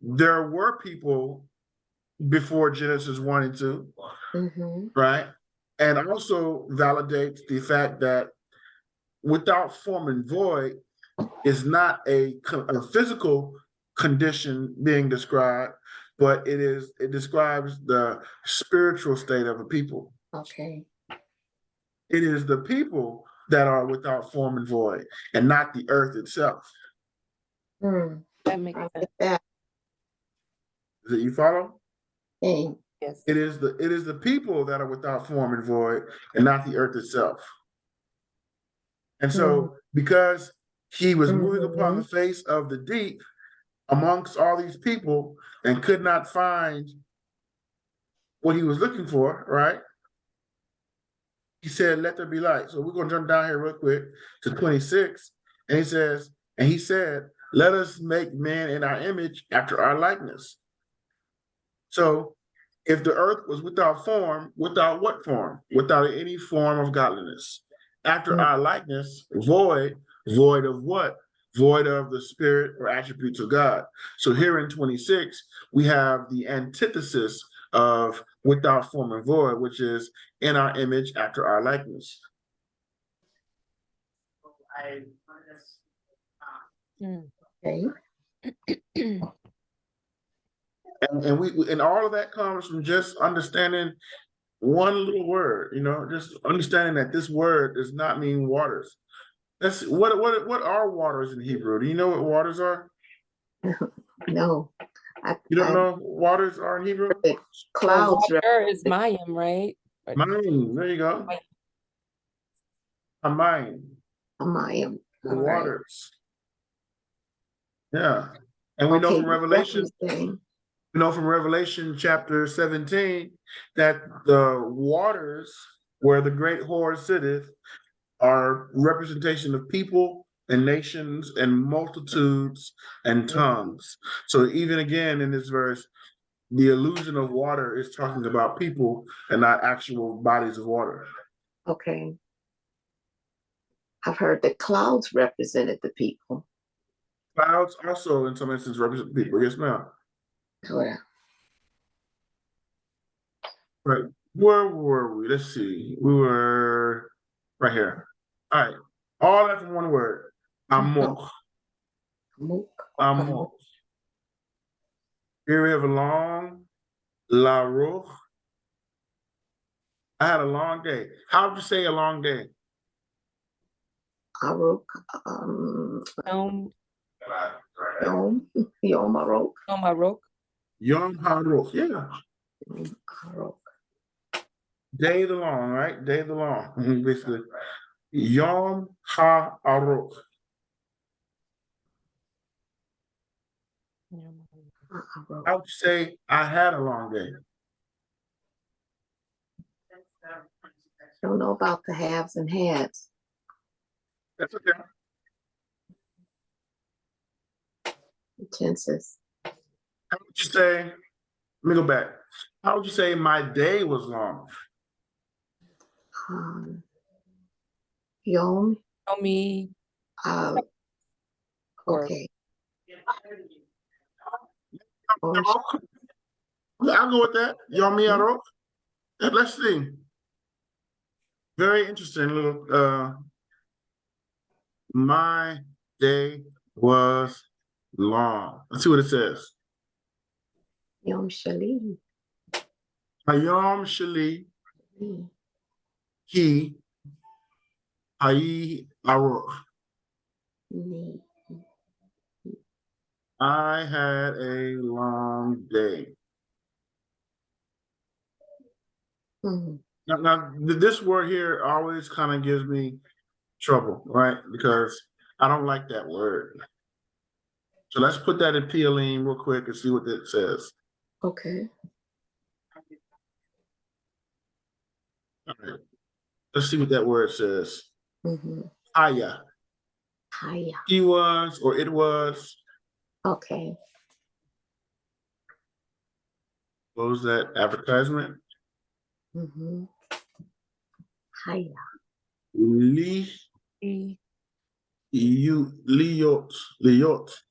there were people before Genesis one and two, hmm right? And also validates the fact that without form and void is not a, co- a physical condition being described, but it is it describes the spiritual state of a people. Okay. It is the people that are without form and void, and not the earth itself. Hmm. That makes I sense. like that That you follow? thing. Yes. It is the it is the people that are without form and void and not the earth itself. And so because he was moving upon the face of the deep amongst all these people and could not find what he was looking for, right? He said, Let there be light. So we're gonna jump down here real quick to 26. And he says, and he said, Let us make man in our image after our likeness. So if the earth was without form, without what form? Without any form of godliness. After Mm. our likeness, void, void of what? Void of the spirit or attributes of God. So here in 26, we have the antithesis of without form and void, which is in our image after our likeness. Okay. And, and we, we- and all of that comes from just understanding one little word, you know, just understanding that this word does not mean waters. That's what, what, what are waters in Hebrew? Do you know what waters are? No. I, You don't I- know what waters are in Hebrew? Clouds. right? Water is Mayim, right? Mine, there you go. A mine, Amayim. the All right. waters. Yeah, and we know Okay, from you Revelation, referencing. we know from Revelation chapter seventeen, that the waters where the great whore sitteth are representation of people and nations and multitudes and Mm-hmm. tongues. So even again in this verse, the illusion of water is talking about people and not actual bodies of water. Okay. I've heard the clouds represented the people. Clouds also in some instances represent people. Yes, ma'am. Correct. Where were we? Let's see. We were right here. All right. All that from one word. Amor. Mo- Amor. Here we have a long La Roche. I had a long day. How would you say a long day? Aruk, um, Um, Yom, Yom Aruk, on my rock. Yom Haroch. Yeah. Yom Aruk. Day of the long, right? Day of the long, basically. Yom Ha Aroch. Uh, Aruk. I would say I had a long day. Don't know about the haves and halves. That's okay. Tenses. How would you say, let me go back. How would you say my day was long? Um, Yom, Yomi, uh, or okay. I'll go with that. Yom Yarok. And Let's see. Very interesting little, uh, my day was long. Let's see what it says. Yom Shalim. Hayom Shali Ki Hayi Arok. Ni. I had a long day. Hmm. Now, now th- this word here always kind of gives me trouble, right? Because I don't like that word. So let's put that in PLM real quick and see what that says. Okay. All right. Let's see what that word says. Mm-hmm. Aya. Hiya. He was or it was. Okay. What was that advertisement? Mm-hmm. Hiya. Li E, you liot liot